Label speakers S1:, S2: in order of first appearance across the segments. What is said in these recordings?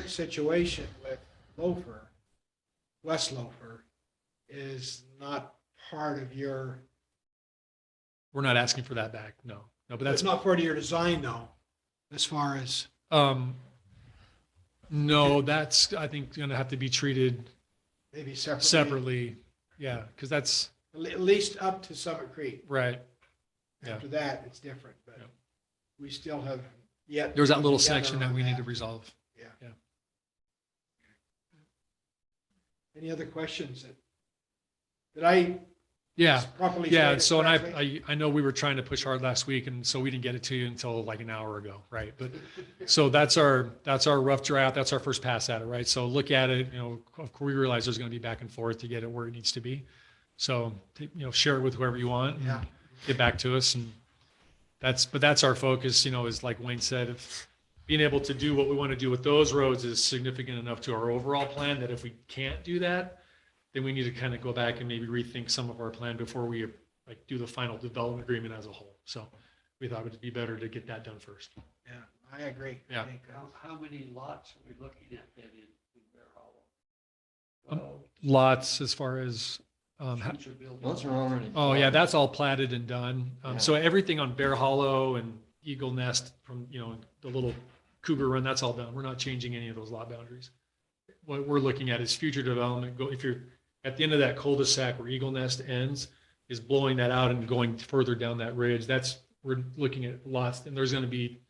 S1: current situation with Lofer, West Lofer, is not part of your,
S2: We're not asking for that back. No, no, but
S1: that's
S2: that's,
S1: not part of your design though, as far as,
S2: um, no, that's, I think, going to have to be treated
S1: maybe separately.
S2: separately. Yeah, because that's,
S1: At le- At least up to Summit Creek.
S2: right. Yeah.
S1: After that, it's different, but
S2: Yep.
S1: we still have yet.
S2: There's
S1: to
S2: that
S1: come
S2: little
S1: together
S2: section that
S1: on
S2: we need to resolve.
S1: Any other questions that, did I
S2: Yeah,
S1: properly?
S2: yeah.
S1: state it
S2: So, and I,
S1: correctly?
S2: I, I know we were trying to push hard last week and so we didn't get it to you until like an hour ago, right? But So that's our, that's our rough draft. That's our first pass at it, right? So look at it, you know, of course, we realize there's going to be back and forth to get it where it needs to be. So, t- you know, share it with whoever you want. and
S1: Yeah.
S2: Get back to us and that's, but that's our focus, you know, is like Wayne said, if being able to do what we want to do with those roads is significant enough to our overall plan that if we can't do that, then we need to kind of go back and maybe rethink some of our plan before we like do the final development agreement as a whole. So we thought it'd be better to get that done first.
S1: Yeah, I agree. I
S2: Yeah.
S1: think, uh,
S3: How, how many lots are we looking at then in, in Bear Hollow?
S2: Um,
S3: Uh,
S2: lots as far as, um, ha-
S3: Future buildings.
S4: Those are already.
S2: oh yeah, that's all platted and done. Um,
S4: Yeah.
S2: so everything on Bear Hollow and Eagle Nest from, you know, the little Cougar Run, that's all done. We're not changing any of those lot boundaries. What we're looking at is future development. Go, if you're at the end of that cul-de-sac where Eagle Nest ends, is blowing that out and going further down that ridge. That's, we're looking at lots and there's going to be,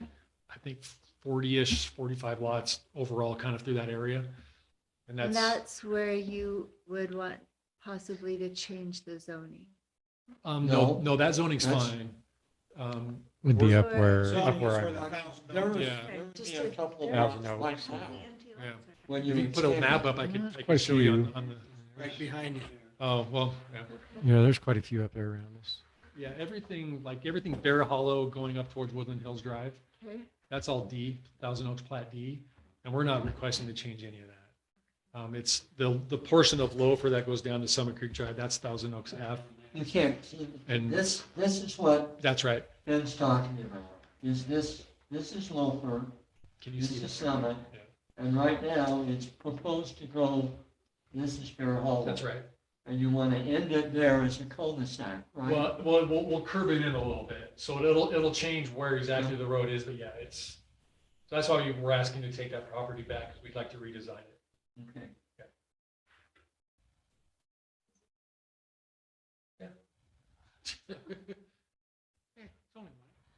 S2: I think, forty-ish, forty-five lots overall kind of through that area. And
S5: And
S2: that's.
S5: that's where you would want possibly to change the zoning.
S2: Um, no,
S4: No.
S2: no, that zoning's
S4: That's-
S2: fine. Um,
S6: Would be
S2: We're-
S6: up
S5: Or-
S6: where,
S1: So
S6: up
S1: it's
S6: where
S1: for
S6: I'm
S1: the
S6: at.
S1: thousand
S4: There was,
S1: dollars.
S2: Yeah.
S4: there would
S5: Just
S4: be a
S5: a-
S4: couple of
S5: Yeah.
S4: lots like that.
S2: Yeah.
S4: When
S2: if you put a
S4: expand
S2: map
S4: it.
S2: up, I
S6: Yeah,
S2: could,
S6: that's
S2: I could
S6: quite
S2: show you on,
S6: you.
S2: on the,
S1: Right behind you.
S2: oh, well, yeah.
S6: Yeah, there's quite a few up there around us.
S2: Yeah, everything, like everything Bear Hollow going up towards Woodland Hills Drive,
S5: Okay.
S2: that's all D, Thousand Oaks Plat D. And we're not requesting to change any of that. Um, it's the, the portion of Lofer that goes down to Summit Creek Drive, that's Thousand Oaks F.
S4: You can't, see-
S2: And-
S4: this, this is what
S2: That's right.
S4: Ben's talking about, is this, this is Lofer,
S2: Can you
S4: this
S2: see
S4: is
S2: that?
S4: Summit.
S2: Yeah.
S4: And right now, it's proposed to go, this is Bear Hollow.
S2: That's right.
S4: And you want to end it there as a cul-de-sac, right?
S2: Well, well, we'll, we'll curve it in a little bit, so it'll, it'll change where exactly the road is, but yeah, it's, so that's why we we're asking to take that property back, because we'd like to redesign it.
S4: Okay.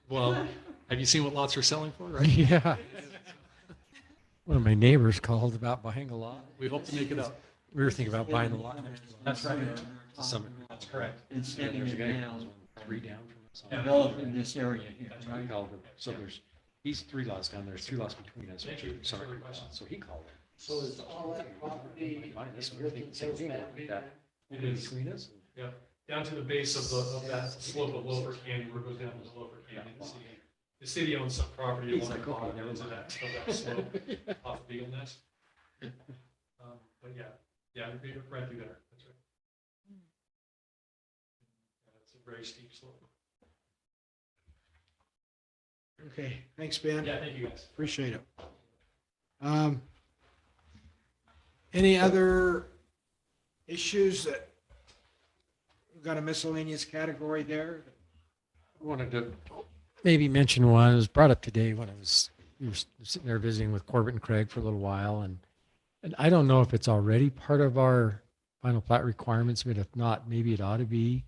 S2: Well, have you seen what lots are selling for, right?
S6: Yeah. One of my neighbors called about buying a lot.
S2: We hope to make it up.
S6: We were thinking about buying a lot next to
S2: That's right.
S6: Summit.
S2: That's correct.
S4: And setting it down,
S7: three down from us.
S4: developing this area here,
S2: That's
S7: He
S4: right?
S7: called it. So there's, he's three lots down, there's two lots between us.
S2: Thank
S7: which
S2: you.
S7: are Summit
S2: Further
S7: Creek lots.
S2: questions?
S7: So he called it.
S3: So is all that property?
S7: Mine, this
S3: in
S7: one, I think,
S3: Woodland
S7: single
S3: Hills
S7: family,
S3: that-
S2: It is
S7: Between us.
S2: down to the base of the, of that slope of Lower Canyon, where it goes down to the Lower Canyon. The city- The city owns some property
S7: He's
S2: along the
S7: like, okay,
S2: bottom
S7: never
S2: of that, of that slope off of Eagle Nest. Um, But yeah, yeah, it'd be right through there, that's right. Yeah, It's a very steep slope.
S1: Okay, thanks, Ben.
S2: Yeah, thank you guys.
S1: Appreciate it. Um, Any other issues that, we've got a miscellaneous category there?
S6: Wanted to maybe mention one, it was brought up today when I was, we were sitting there visiting with Corbett and Craig for a little while and, and I don't know if it's already part of our final plat requirements, but if not, maybe it ought to be.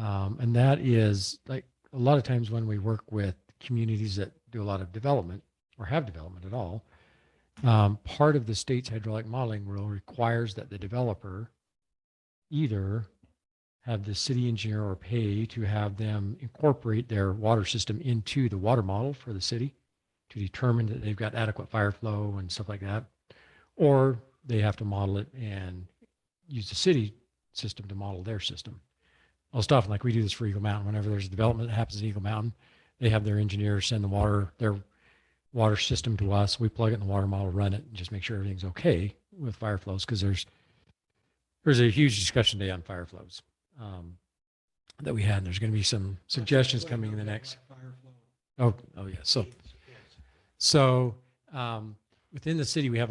S6: Um, and that is like, a lot of times when we work with communities that do a lot of development or have development at all, um, part of the state's hydraulic modeling rule requires that the developer either have the city engineer or pay to have them incorporate their water system into the water model for the city to determine that they've got adequate fire flow and stuff like that. Or they have to model it and use the city system to model their system. Most often, like we do this for Eagle Mountain, whenever there's a development that happens at Eagle Mountain, they have their engineers send the water, their water system to us. We plug it in the water model, run it, and just make sure everything's okay with fire flows because there's there's a huge discussion today on fire flows um, that we had. And there's going to be some suggestions coming in the next. Oh, oh yeah. So, so um,
S2: within the city, we have a